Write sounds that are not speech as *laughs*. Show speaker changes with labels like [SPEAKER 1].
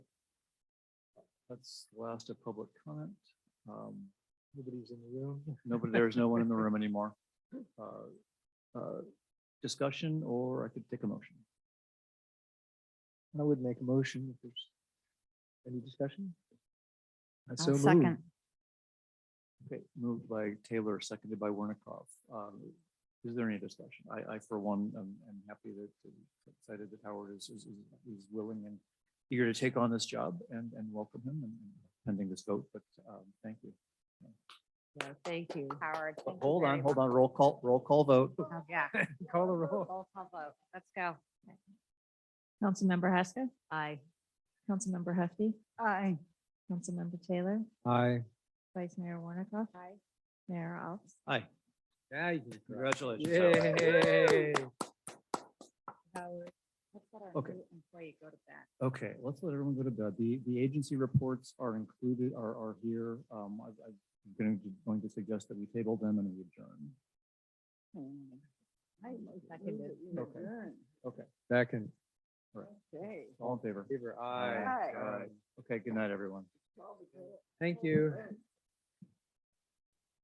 [SPEAKER 1] That's the last of public comment. Um,
[SPEAKER 2] Nobody's in the room.
[SPEAKER 1] Nobody, there is no one in the
[SPEAKER 2] *laughs*
[SPEAKER 1] room anymore. Uh, uh, Discussion, or I could take a motion.
[SPEAKER 2] I would make a motion if there's any discussion. I so
[SPEAKER 3] I'll
[SPEAKER 2] moved.
[SPEAKER 3] second.
[SPEAKER 1] Okay, moved by Taylor, seconded by Wernicott. Um, Is there any discussion? I, I for one, am am happy that, that- excited that Howard is, is, is- is willing and eager to take on this job and, and welcome him and and pending this vote, but um, thank you.
[SPEAKER 3] Yeah, Thank you, Howard.
[SPEAKER 1] But Hold on, hold on, roll call, roll call vote.
[SPEAKER 4] Oh.
[SPEAKER 3] Yeah.
[SPEAKER 2] Call the
[SPEAKER 3] Roll
[SPEAKER 2] roll.
[SPEAKER 3] call vote. Let's go.
[SPEAKER 4] Councilmember Haskell,
[SPEAKER 3] Aye.
[SPEAKER 4] Councilmember Hefty,
[SPEAKER 3] Aye.
[SPEAKER 4] Councilmember Taylor,
[SPEAKER 2] Aye.
[SPEAKER 4] Vice Mayor Warnikoff,
[SPEAKER 3] Aye.
[SPEAKER 4] Mayor Alves.
[SPEAKER 1] Hi,
[SPEAKER 2] Yeah, you can cry.
[SPEAKER 1] congratulations. Howard.
[SPEAKER 2] Yay.
[SPEAKER 3] Howard. Let's let our
[SPEAKER 1] Okay.
[SPEAKER 3] new Employee go to bed.
[SPEAKER 1] Okay, let's let everyone go to bed. The, the agency reports are included, are, are here. Um, I, I'm going to, going to suggest that we table them and we adjourn.
[SPEAKER 3] Hmm. I seconded.
[SPEAKER 1] Okay. Okay,
[SPEAKER 2] Second.
[SPEAKER 3] Okay.
[SPEAKER 1] all in favor?
[SPEAKER 2] Give her
[SPEAKER 1] Aye.
[SPEAKER 2] aye.
[SPEAKER 1] Aye. Okay, good night, everyone.
[SPEAKER 2] Thank you.